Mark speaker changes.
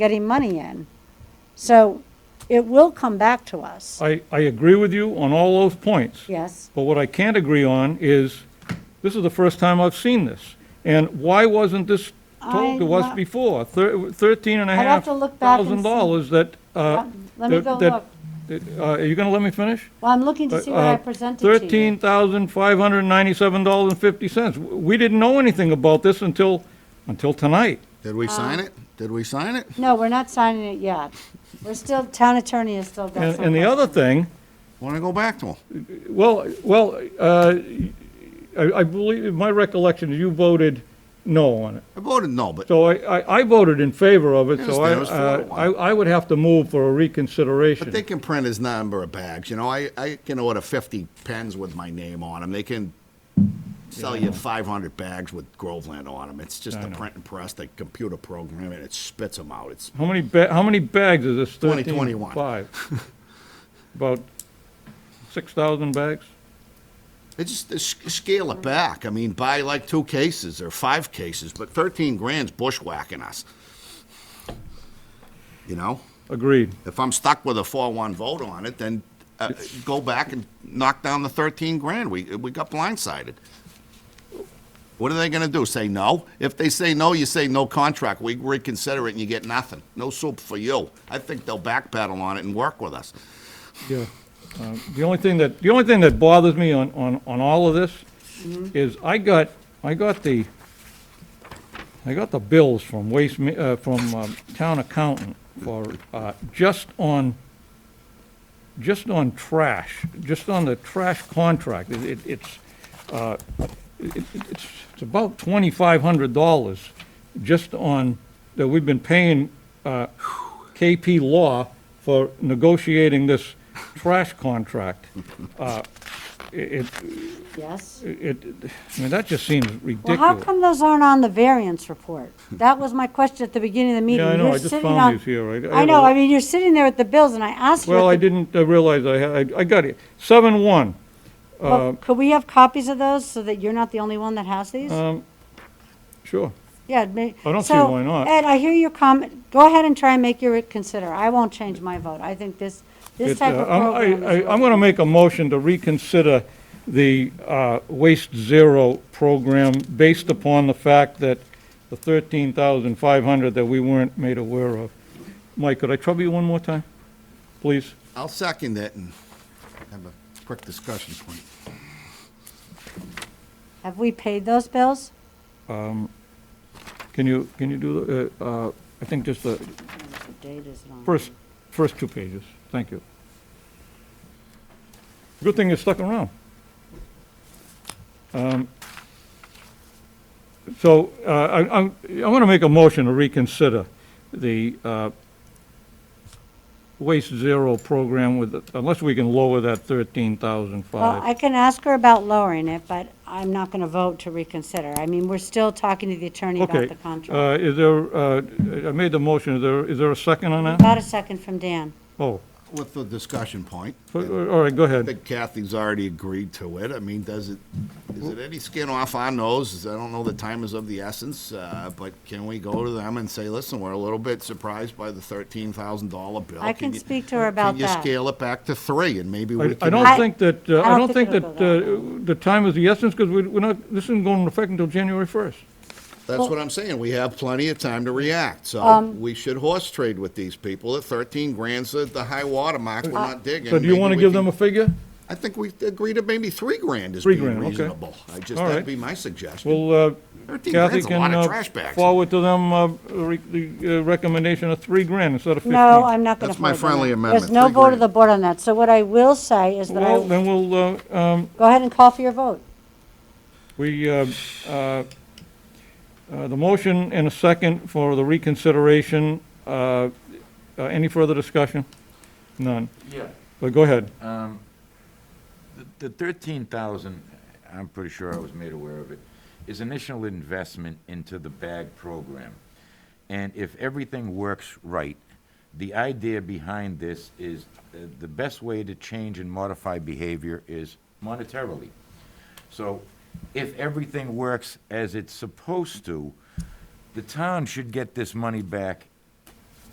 Speaker 1: getting money in. So it will come back to us.
Speaker 2: I, I agree with you on all those points.
Speaker 1: Yes,
Speaker 2: But what I can't agree on is, this is the first time I've seen this. And why wasn't this told to
Speaker 1: I'm
Speaker 2: us
Speaker 1: not-
Speaker 2: before? Thir- Thirteen and a
Speaker 1: I'd have
Speaker 2: half
Speaker 1: to look back and
Speaker 2: thousand
Speaker 1: see.
Speaker 2: dollars that, uh.
Speaker 1: Um, let me
Speaker 2: that-
Speaker 1: go
Speaker 2: that-
Speaker 1: look.
Speaker 2: that, uh, Are you gonna let me finish?
Speaker 1: Well, I'm looking to see what
Speaker 2: Uh,
Speaker 1: I
Speaker 2: uh,
Speaker 1: presented to you.
Speaker 2: Thirteen thousand five hundred ninety-seven dollars and fifty cents. We didn't know anything about this until, until tonight.
Speaker 3: Did we sign it? Did we sign it?
Speaker 1: No, we're not signing it yet. We're still, town attorney is still got
Speaker 2: And,
Speaker 1: some
Speaker 2: and the
Speaker 1: work.
Speaker 2: other thing,
Speaker 3: Want to go back to them?
Speaker 2: Well, well, uh, I I believe, my recollection is you voted no on it.
Speaker 3: I voted no, but
Speaker 2: So I- I I voted in favor of it,
Speaker 3: Yes,
Speaker 2: so I
Speaker 3: there was four to
Speaker 2: uh,
Speaker 3: one.
Speaker 2: I I would have to move for a reconsideration.
Speaker 3: but they can print his number of bags. You know, I, I can order 50 pens with my name on them. They can sell you 500 bags with Groveland on them. It's just a print and press, the computer program, and it spits them out. It's
Speaker 2: How many, ba- how many bags is this 13?
Speaker 3: 2021.
Speaker 2: Five. About 6,000 bags?
Speaker 3: It just s- scale it back. I mean, buy like two cases or five cases, but 13 grand's bushwhacking us. You know?
Speaker 2: Agreed.
Speaker 3: If I'm stuck with a four-one vote on it, then uh, go back and knock down the thirteen grand. We, we got blindsided. What are they gonna do, say no? If they say no, you say no contract, we reconsider it and you get nothing. No soup for you. I think they'll backpedal on it and work with us.
Speaker 2: Yeah. Uh, The only thing that, the only thing that bothers me on, on, on all of this is I got, I got the, I got the bills from Waste, Ma- uh, from um, Town Accountant for, uh, just on, just on trash, just on the trash contract. It, it- it's, uh, it- it- it's, it's about twenty-five hundred dollars just on, that we've been paying, uh, KP Law for negotiating this trash contract. Uh, It,
Speaker 1: Yes.
Speaker 2: it, I mean, that just seems
Speaker 1: Well, how
Speaker 2: ridiculous.
Speaker 1: come those aren't on the variance report? That was my question at the beginning of the meeting.
Speaker 2: Yeah, I know,
Speaker 1: You're
Speaker 2: I just
Speaker 1: sitting on-
Speaker 2: found these here. I- I
Speaker 1: I
Speaker 2: had
Speaker 1: know,
Speaker 2: a-
Speaker 1: I mean, you're sitting there with the bills, and I asked you.
Speaker 2: Well, I
Speaker 1: at the-
Speaker 2: didn't uh, realize I had, I got it. Seven one.
Speaker 1: well,
Speaker 2: uh,
Speaker 1: Could we have copies of those, so that you're not the only one that has
Speaker 2: Uh,
Speaker 1: these?
Speaker 2: Sure.
Speaker 1: Yeah, may-
Speaker 2: I don't see
Speaker 1: so,
Speaker 2: why not.
Speaker 1: Ed, I hear your comment, go ahead and try and make your consider, I won't change my vote, I think this, this
Speaker 2: It,
Speaker 1: type
Speaker 2: uh,
Speaker 1: of
Speaker 2: I'm- I-
Speaker 1: program is.
Speaker 2: I- I'm going to make a motion to reconsider the uh, Waste Zero program based upon the fact that the 13,500 that we weren't made aware of. Mike, could I trouble you one more time, please?
Speaker 3: I'll second it and have a quick discussion point.
Speaker 1: Have we paid those bills?
Speaker 2: Can you, can you do, the uh, uh, I think just the
Speaker 1: What date is it on?
Speaker 2: first, first two pages. Thank you. Good thing you stuck around. Um, So uh, I, I'm, I want to make a motion to reconsider the uh, Waste Zero program with, unless we can lower that thirteen thousand
Speaker 1: Well,
Speaker 2: five.
Speaker 1: I can ask her about lowering it, but I'm not going to vote to reconsider, I mean, we're still talking to the attorney
Speaker 2: Okay.
Speaker 1: about the contract.
Speaker 2: uh, Is there, uh, I made the motion, is there, is there a second on that?
Speaker 1: About a second from Dan,
Speaker 2: Oh,
Speaker 3: With the discussion point,
Speaker 2: all right, go
Speaker 3: I
Speaker 2: ahead.
Speaker 3: think Kathy's already agreed to it. I mean, does it, is it any skin off our nose? I don't know the time is of the essence, uh, but can we go to them and say, listen, we're a little bit surprised by the thirteen thousand dollar bill?
Speaker 1: I can
Speaker 3: you-
Speaker 1: speak to her about
Speaker 3: Can
Speaker 1: that.
Speaker 3: you scale it back to three and maybe we
Speaker 2: I
Speaker 3: can?
Speaker 2: I don't
Speaker 1: I-
Speaker 2: think that, uh, I don't think that
Speaker 1: it'll go that
Speaker 2: uh, the time is the essence, because we're not, this isn't going into effect until January 1st.
Speaker 3: That's what I'm saying. We have plenty of time to react, so
Speaker 1: Um,
Speaker 3: we should horse trade with these people. At thirteen grand's the- the high water mark. We're not digging.
Speaker 2: So do you
Speaker 3: Maybe
Speaker 2: want to
Speaker 3: we
Speaker 2: give
Speaker 3: can-
Speaker 2: them a figure?
Speaker 3: I think we agreed to maybe three grand is
Speaker 2: Three
Speaker 3: being
Speaker 2: grand, okay.
Speaker 3: reasonable. I just,
Speaker 2: All
Speaker 3: that'd
Speaker 2: right.
Speaker 3: be my suggestion.
Speaker 2: Well, uh,
Speaker 3: 13
Speaker 2: Kathy
Speaker 3: grand's a lot
Speaker 2: can
Speaker 3: of
Speaker 2: uh,
Speaker 3: trash bags.
Speaker 2: forward to them uh, re- the uh, recommendation of three grand instead of 15.
Speaker 1: no, I'm not going to
Speaker 3: That's my
Speaker 1: vote on
Speaker 3: friendly
Speaker 1: that. There's
Speaker 3: amendment,
Speaker 1: no
Speaker 3: three
Speaker 1: vote of
Speaker 3: grand.
Speaker 1: the board on that, so what I will say is that I,
Speaker 2: Well,
Speaker 1: will
Speaker 2: then we'll, uh, um,
Speaker 1: go ahead and call for your vote.
Speaker 2: we, uh, uh, uh, the motion and a second for the reconsideration. Uh, uh, Any further discussion? None.
Speaker 4: Yeah,
Speaker 2: But go ahead.
Speaker 4: the- the thirteen thousand, I'm pretty sure I was made aware of it, is initial investment into the bag program. And if everything works right, the idea behind this is uh, the best way to change and modify behavior is monetarily. So if everything works as it's supposed to, the town should get this money back